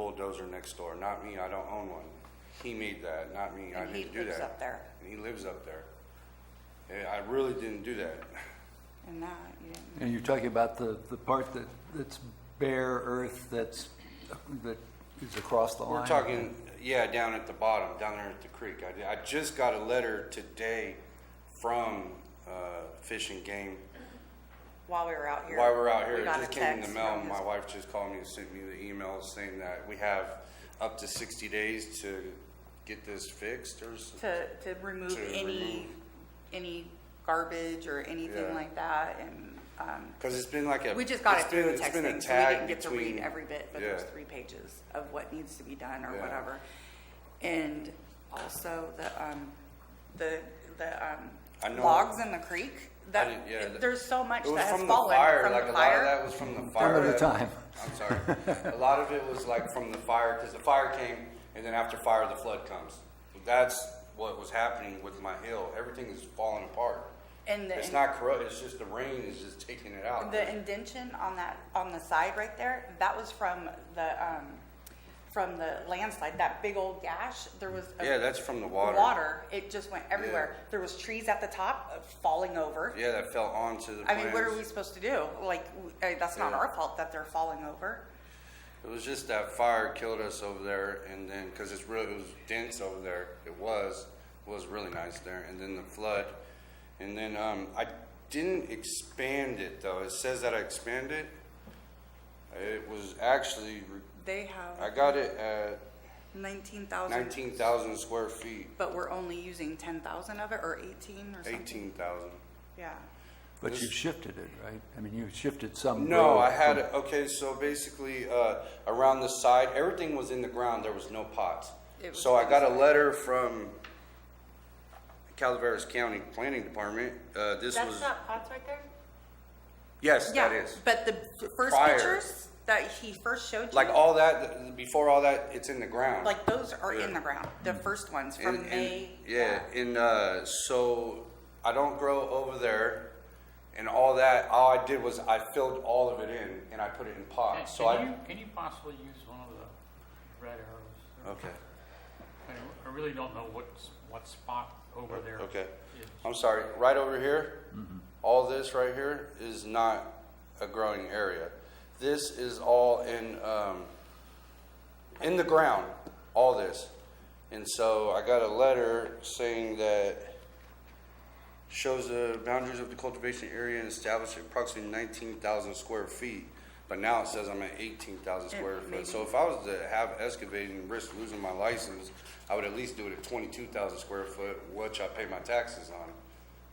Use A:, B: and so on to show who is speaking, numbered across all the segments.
A: bulldozer next door, not me, I don't own one. He made that, not me, I
B: And he
A: didn't do that.
B: lives up there.
A: And he lives up there. Yeah, I really didn't do that.
B: And that, you didn't.
C: And you're talking about the, the part that, that's bare earth that's, that is across the line?
A: We're talking, yeah, down at the bottom, down there at the creek. I, I just got a letter today from, uh, Fish and Game
B: While we were out here.
A: While we're out here,
B: we
A: it
B: got a
A: just came in the
B: text
A: mail,
B: from his-
A: my wife just called me and sent me the email saying that we have up to sixty days to get this fixed or s-
B: To, to remove
A: To
B: any,
A: remove.
B: any garbage or anything
A: Yeah.
B: like that, and, um,
A: Cause it's been like a.
B: We just got
A: it's
B: it through
A: been-
B: the
A: it's
B: text
A: been a
B: thing, so we
A: tag
B: didn't get to read
A: between-
B: every bit, but
A: yeah.
B: there's three pages of what needs to be done or
A: Yeah.
B: whatever. And also the, um, the, the,
A: I
B: um,
A: know-
B: logs in the creek,
A: didn't- yeah,
B: that,
A: that-
B: there's so much
A: It was
B: that has
A: from the
B: fallen
A: fire,
B: from
A: like
B: the
A: a lot of
B: fire.
A: that was from the fire.
C: Another
A: that-
C: time.
A: I'm sorry. A lot of it was like from the fire, cause the fire came and then after fire, the flood comes. That's what was happening with my hill. Everything is falling apart.
B: And the-
A: It's not corrupt, it's just the rain is just taking it out.
B: The indention on that, on the side right there, that was from the, um, from the landslide, that big old gash, there was. a-
A: Yeah, that's from the
B: the
A: water.
B: Water, it just went everywhere. There was trees at the top uh, falling over.
A: Yeah, that fell onto the
B: I mean, what are
A: plants.
B: we supposed to do? Like, w- uh, that's not
A: Yeah.
B: our fault that they're falling over.
A: It was just that fire killed us over there, and then because it's really it was dense over there. It was was really nice there, and then the flood, and then um, I didn't expand it though. It says that I expanded. It was actually
B: They
A: I
B: have
A: got it at
B: nineteen thousand,
A: nineteen thousand square feet,
B: but we're only using ten thousand of it, or eighteen or something?
A: eighteen thousand.
B: Yeah.
C: But you've shifted it, right? I mean, you've shifted some.
A: No,
C: road
A: I had
C: from-
A: it. Okay, so basically, uh, around the side, everything was in the ground. There was no pots.
B: It was
A: So I got a letter from Calaveras County Planning Department. Uh, this was
D: That's not pots right there?
A: yes,
B: Yeah,
A: that is
B: but the first
A: Prior.
B: pictures that he first showed
A: like
B: you,
A: all that. th- Before all that, it's in the ground.
B: like those are in
A: Yeah. Mm.
B: the ground, the first ones from May.
A: yeah, and uh, so I don't grow over there, and all that. All I did was I filled all of it in and I put it in
E: Can-
A: pots. Uh, So
E: Can
A: I
E: you, can you possibly use one of the red arrows?
A: okay.
E: I don't- I really don't know what's, what spot over there.
A: Uh, Okay.
E: is.
A: I'm sorry, right over here, all this right here is not a growing area. This is all in, um, in the ground, all this. And so I got a letter saying that shows the boundaries of the cultivation area and established at approximately nineteen thousand square feet. But now it says I'm at eighteen thousand square foot. So if I was to have excavating and risk losing my license, I would at least do it at twenty-two thousand square foot, which I pay my taxes on.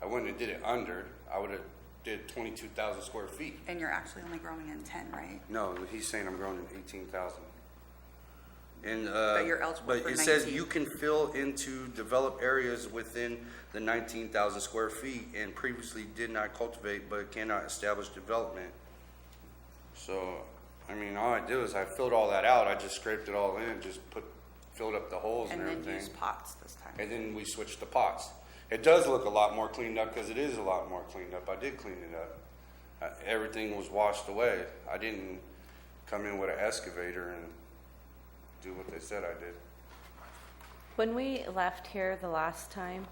A: I wouldn't have did it under, I would have did twenty-two thousand square feet.
B: And you're actually only growing in ten, right?
A: No, he's saying I'm growing in eighteen thousand. And, uh.
B: But you're eligible
A: but
B: for
A: it says
B: 19.
A: you can fill into developed areas within the nineteen thousand square feet and previously did not cultivate but cannot establish development. So, I mean, all I do is I filled all that out, I just scraped it all in, just put, filled up the holes and
B: And
A: everything.
B: then use pots this time.
A: And then we switched to pots. It does look a lot more cleaned up because it is a lot more cleaned up. I did clean it up. Uh, everything was washed away. I didn't come in with an excavator and do what they said I did.
D: When we left here the last time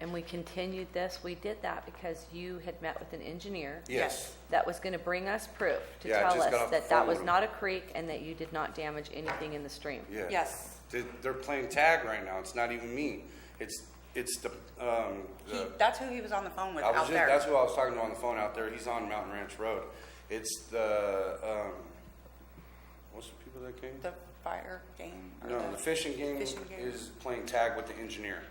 D: and we continued this, we did that because you had met with an engineer
B: Yes.
D: that was going to bring us proof to
A: Yeah, I
D: tell
A: just got
D: us
A: off the
D: that that
A: phone
D: was
A: with him.
D: not a creek and that you did not damage anything in the stream.
A: Yeah.
B: Yes.
A: They, they're playing tag right now. It's not even me. It's it's the um.
B: He,
A: The,
B: that's who he was on the phone with
A: I was
B: out
A: just,
B: there.
A: That's who I was talking to on the phone out there. He's on Mountain Ranch Road. It's the um. What's the people that came?
B: The fire game. or
A: No, the fishing game
B: Fish and game.
A: is playing tag with the engineer.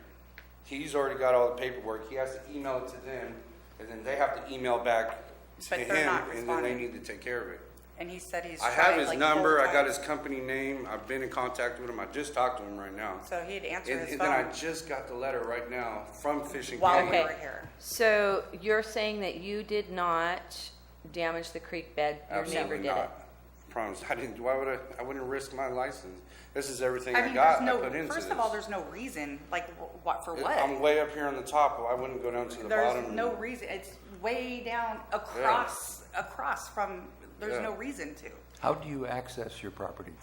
A: He's already got all the paperwork. He has to email it to them, and then they have to email back to
B: But
A: him,
B: they're
A: and
B: not
A: then they
B: responding.
A: need to take care of it.
B: And he said he's.
A: I
B: tried,
A: have his
B: like,
A: number.
B: four
A: I got
B: times.
A: his company name. I've been in contact with him. I just talked to him right now.
B: So he'd answer
A: And,
B: his
A: and
B: phone.
A: then I just got the letter right now from fishing
B: While
A: game.
B: we
D: Okay.
B: were here.
D: So you're saying that you did not damage the creek bed, your neighbor
A: Absolutely
D: did it?
A: not. Promise. I didn't. Why would I? I wouldn't risk my license. This is everything
B: I
A: I,
B: mean,
A: got.
B: there's
A: I put
B: no,
A: into
B: first
A: this.
B: of all, there's no reason, like, wh- what, for
A: I'm
B: what?
A: way up here on the top. I wouldn't go down to the bottom.
B: There's
A: and-
B: no reason, it's way down across, across from, there's
A: Yeah.
B: no reason to.
C: How do you access your property